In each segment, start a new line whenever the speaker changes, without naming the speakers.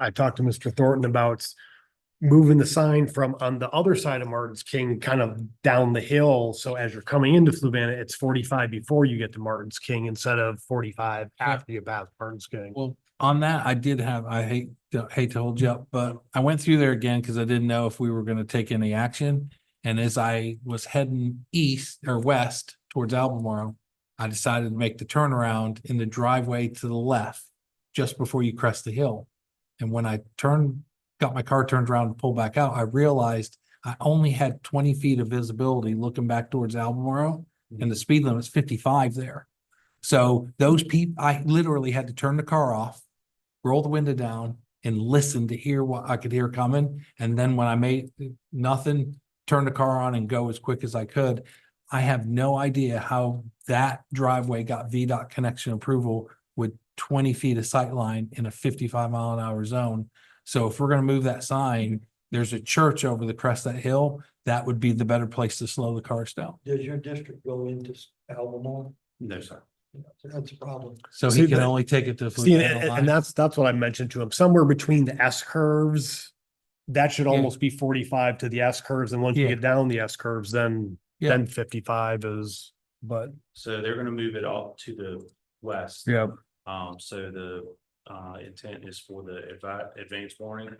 I talked to Mr. Thornton about moving the sign from on the other side of Martin's King, kind of down the hill. So as you're coming into Fluvanna, it's forty-five before you get to Martin's King instead of forty-five after you pass Martin's King.
Well, on that, I did have, I hate, to- hate to hold you up, but I went through there again because I didn't know if we were gonna take any action. And as I was heading east or west towards Albemarle, I decided to make the turnaround in the driveway to the left, just before you crest the hill. And when I turned, got my car turned around to pull back out, I realized I only had twenty feet of visibility looking back towards Albemarle. And the speed limit's fifty-five there. So those people, I literally had to turn the car off, roll the window down and listen to hear what I could hear coming. And then when I made nothing, turn the car on and go as quick as I could. I have no idea how that driveway got VDOT connection approval with twenty feet of sight line in a fifty-five mile an hour zone. So if we're gonna move that sign, there's a church over the crest of that hill. That would be the better place to slow the cars down.
Does your district go into s- Albemarle?
No, sir.
So That's a problem.
So
See,
he can
but-
only take it to.
See, and-
Fluvanna
and,
Line.
and that's, that's what I mentioned to him, somewhere between the S curves. That should
Yeah.
almost be forty-five to the S curves, and once you
Yeah.
get down the S curves, then,
Yeah.
then fifty-five is, but.
So they're gonna move it all to the west.
Yeah.
Um, so the, uh, intent is for the advi- advance warning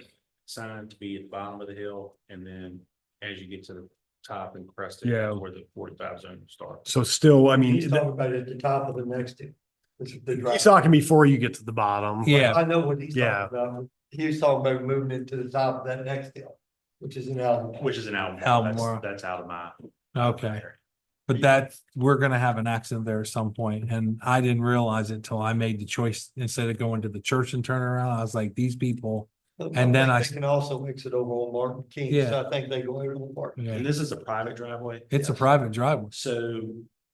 sign to be at the bottom of the hill, and then as you get to the top and crest it,
Yeah.
where the forty-five zone starts.
So still, I mean,
He's
he's
talking about at the top of the next. this is the drive.
talking before you get to the bottom.
Yeah.
I know what he's
Yeah.
talking about. He was talking about moving it to the top of that next hill, which is an Albemarle.
Which is an Albemarle,
Albemarle.
that's, that's out of my.
Okay, but that, we're gonna have an accident there at some point, and I didn't realize it until I made the choice, instead of going to the church and turning around, I was like, these people. And then I-
They Can also mix it over on Martin King,
Yeah.
so I think they go over on Martin.
yeah,
And this is a private driveway.
It's a private driveway,
So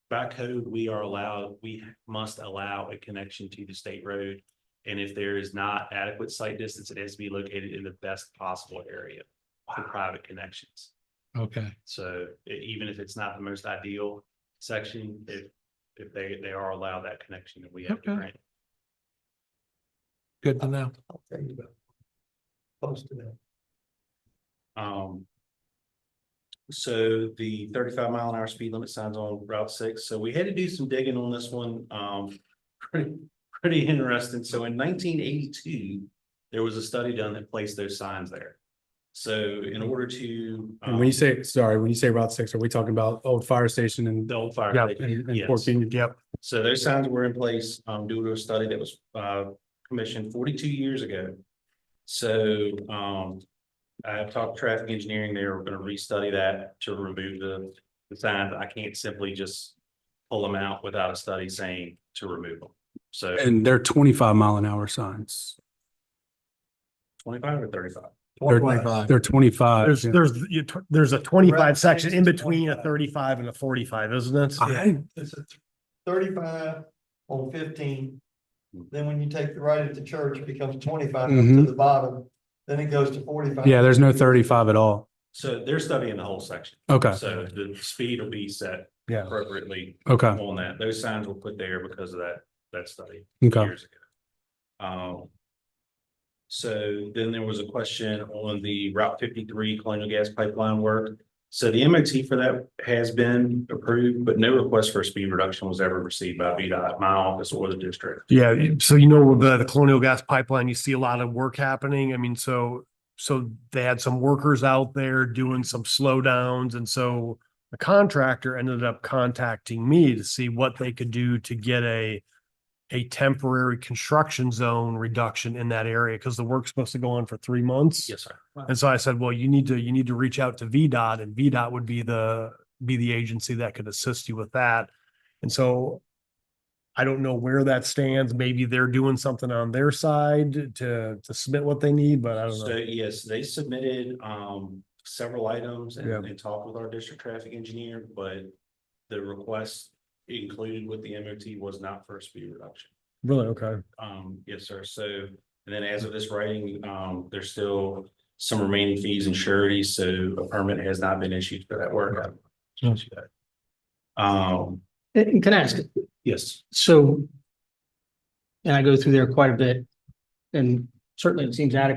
by code, we are allowed, we must allow a connection to the state road. And if there is not adequate site distance, it has to be located in the best possible area for private connections.
okay,
So e- even if it's not the most ideal section, if, if they, they are allowed that connection, then we have to
Okay.
grant. it.
good to know.
I'll tell you about. it. Close to that.
Um. So the thirty-five mile an hour speed limit signs on Route six, so we had to do some digging on this one, um, pretty, pretty interesting, so in nineteen eighty-two. There was a study done that placed those signs there. So in order to.
And when
um,
you say, sorry, when you say Route six, are we talking about old fire station and
The old fire.
Yeah,
station,
and and
yes.
fourteen?
Yep.
So those signs were in place um due to a study that was uh commissioned forty-two years ago. So um I have talked to traffic engineering, they're gonna restudy that to remove the the signs. I can't simply just pull them out without a study saying to remove them. So
And they're twenty-five mile an hour signs.
twenty-five or thirty-five?
They're-
Twenty-five.
They're twenty-five.
There's,
yeah.
there's, you t- there's a twenty-five
Right.
section in between a thirty-five and a forty-five, isn't it?
I,
It's a th- thirty-five on fifteen. Then when you take the right at the church, it becomes twenty-five up to
Mhm.
the bottom, then it goes to forty-five.
yeah, there's no thirty-five at all.
So they're studying the whole section.
Okay,
So the speed will be set
Yeah.
appropriately
okay,
on that. Those signs were put there because of that, that study.
okay.
years ago. Um. So then there was a question on the Route fifty-three colonial gas pipeline work. So the MOT for that has been approved, but no request for a speed reduction was ever received by VDOT, my office or the district.
Yeah, you- so you know, with the, the colonial gas pipeline, you see a lot of work happening. I mean, so, so they had some workers out there doing some slowdowns. And so the contractor ended up contacting me to see what they could do to get a, a temporary construction zone reduction in that area, because the work's supposed to go on for three months.
Yes, sir.
And so I said, well, you need to, you need to reach out to VDOT and VDOT would be the, be the agency that could assist you with that. And so I don't know where that stands. Maybe they're doing something on their side to, to submit what they need, but I don't
So
know.
yes, they submitted um several items
Yeah.
and they talked with our district traffic engineer, but the request included with the MOT was not for a speed reduction.
Really? Okay.
Um, yes, sir. So, and then as of this writing, um, there's still some remaining fees and sureties, so a permit has not been issued for that work. Um,
And and can I ask,
yes,
so, and I go through there quite a bit, and certainly it seems adequate